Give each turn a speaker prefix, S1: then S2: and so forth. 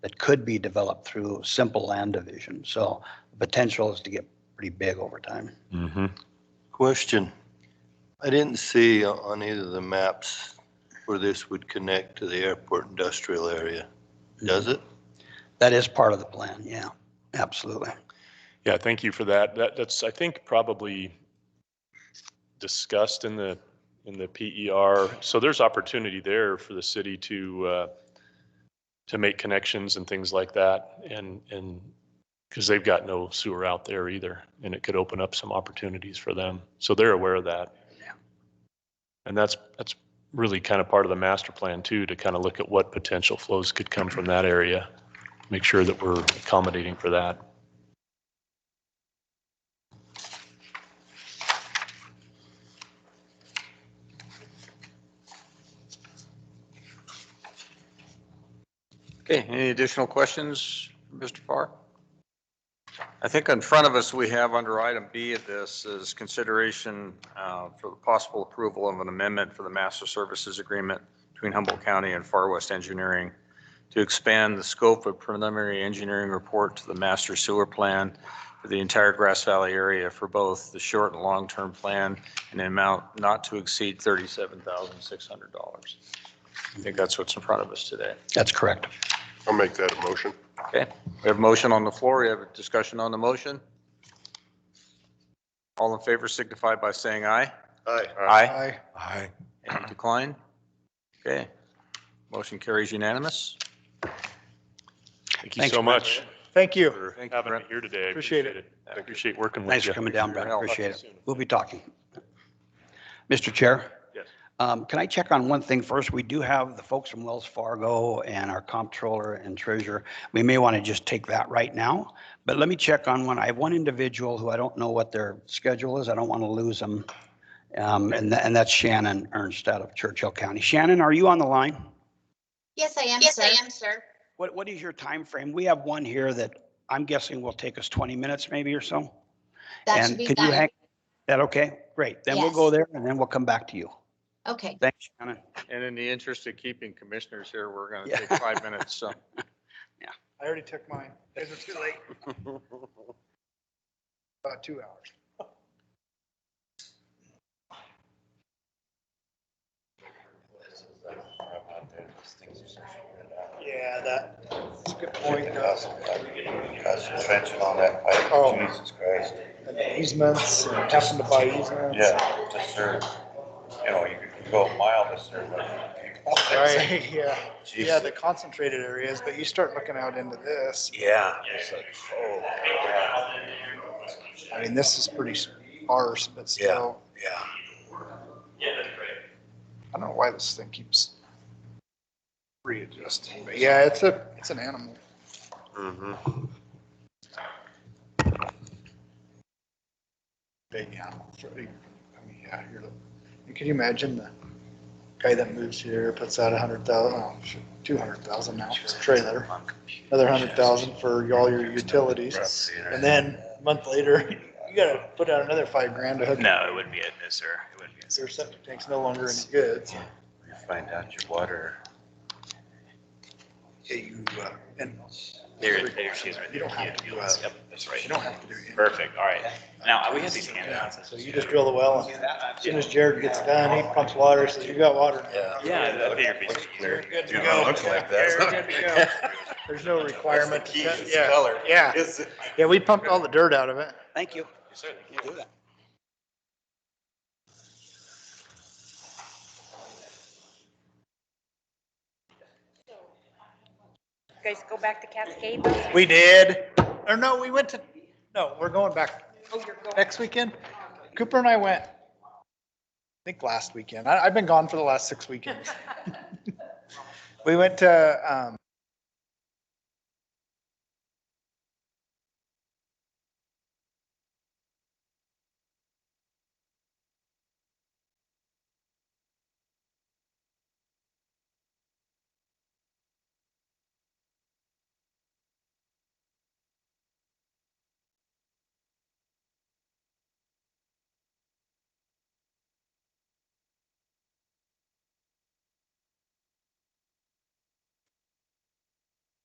S1: that could be developed through simple land division. So the potential is to get pretty big over time.
S2: Mm-hmm.
S3: Question. I didn't see on either of the maps where this would connect to the airport industrial area. Does it?
S1: That is part of the plan, yeah, absolutely.
S2: Yeah, thank you for that. That, that's, I think, probably discussed in the, in the PER. So there's opportunity there for the city to, uh, to make connections and things like that and, and, because they've got no sewer out there either, and it could open up some opportunities for them. So they're aware of that.
S1: Yeah.
S2: And that's, that's really kind of part of the master plan too, to kind of look at what potential flows could come from that area. Make sure that we're accommodating for that.
S4: Okay, any additional questions, Mr. Park? I think in front of us, we have under item B of this is consideration uh, for the possible approval of an amendment for the master services agreement between Humboldt County and Far West Engineering to expand the scope of preliminary engineering report to the master sewer plan for the entire Grass Valley area for both the short and long-term plan in an amount not to exceed $37,600. I think that's what's in front of us today.
S1: That's correct.
S5: I'll make that a motion.
S4: Okay, we have a motion on the floor. We have a discussion on the motion. All in favor signify by saying aye.
S5: Aye.
S4: Aye. Aye. Any decline? Okay, motion carries unanimous.
S2: Thank you
S1: Thanks,
S2: so
S1: Brent.
S2: much
S6: Thank you.
S2: for
S4: Thank you,
S2: having me
S4: Brent.
S2: here today. I
S6: Appreciate it.
S2: I Appreciate working with you.
S1: Thanks for coming down, Brett.
S4: Well,
S1: Appreciate it. We'll be talking. Mr. Chair?
S2: Yes.
S1: Um, Can I check on one thing first? We do have the folks from Wells Fargo and our comptroller and treasurer. We may want to just take that right now, but let me check on one. I have one individual who I don't know what their schedule is. I don't want to lose them. Um, And tha- and that's Shannon Ernst out of Churchill County. Shannon, are you on the line?
S7: Yes, I am,
S8: Yes,
S7: sir.
S8: I am, sir.
S1: What, what is your time frame? We have one here that I'm guessing will take us 20 minutes maybe or so.
S8: That
S1: And
S8: should be
S1: can you
S8: fine.
S1: hang? That okay? Great. Then we'll go
S8: Yes.
S1: there and then we'll come back to you.
S8: Okay,
S1: Thanks, Shannon.
S4: And in the interest of keeping commissioners here, we're going
S1: Yeah.
S4: to take five minutes, so.
S6: I already took mine. It was too late. About two hours. Yeah, that, that's a good
S5: Oh.
S6: point. uh,
S5: Trenching on that
S6: Oh.
S5: pipe, Jesus Christ.
S6: And the Easements, and having to buy easements.
S5: Yeah, to serve, you know, you could go a mile to serve. other people.
S6: Right, yeah. Yeah,
S5: Jesus.
S6: the concentrated areas, but you start looking out into this.
S5: Yeah. It's like, oh, yeah,
S6: I mean, this is pretty sparse, but still,
S5: yeah.
S6: I don't know why this thing keeps readjusting. But yeah, it's a, it's an animal.
S3: Mm-hmm.
S6: big animal. So, I mean, yeah, you're, and can you imagine the guy that moves here, puts out a hundred thousand, oh, shit, two hundred thousand now, it's a trailer, another hundred thousand for all your utilities. And then a month later, you gotta put out another five grand to hook.
S9: No, it wouldn't be it, no, sir. It wouldn't be it.
S6: Your septic tank's no longer any good. so,
S5: You find out your water.
S6: Yeah, you, uh, and
S9: There, there she is right there.
S6: You don't have to do
S9: Yeah,
S6: that.
S9: Yep, that's
S6: you
S9: right.
S6: don't have to do anything.
S9: Perfect, all right. Now, we have these handouts.
S6: So you just drill the well and as soon as Jared gets done, he pumps water, says you got water. now."
S9: Yeah, that'd be your piece.
S5: Clear.
S6: Good to
S5: You know,
S6: go.
S5: it Looks like that.
S6: You're good to go. There's no requirement. to cut-
S5: Keys,
S6: Yeah.
S5: color.
S6: Yeah.
S5: Is it-
S6: Yeah, we pumped all the dirt out of it.
S1: Thank you.
S8: guys go back to Cascade. Oh,
S6: We did. Or no, we went to, no, we're going back
S8: Oh, you're going.
S6: next weekend. Cooper and I went, I think last weekend. I, I've been gone for the last six weekends. We went to, um,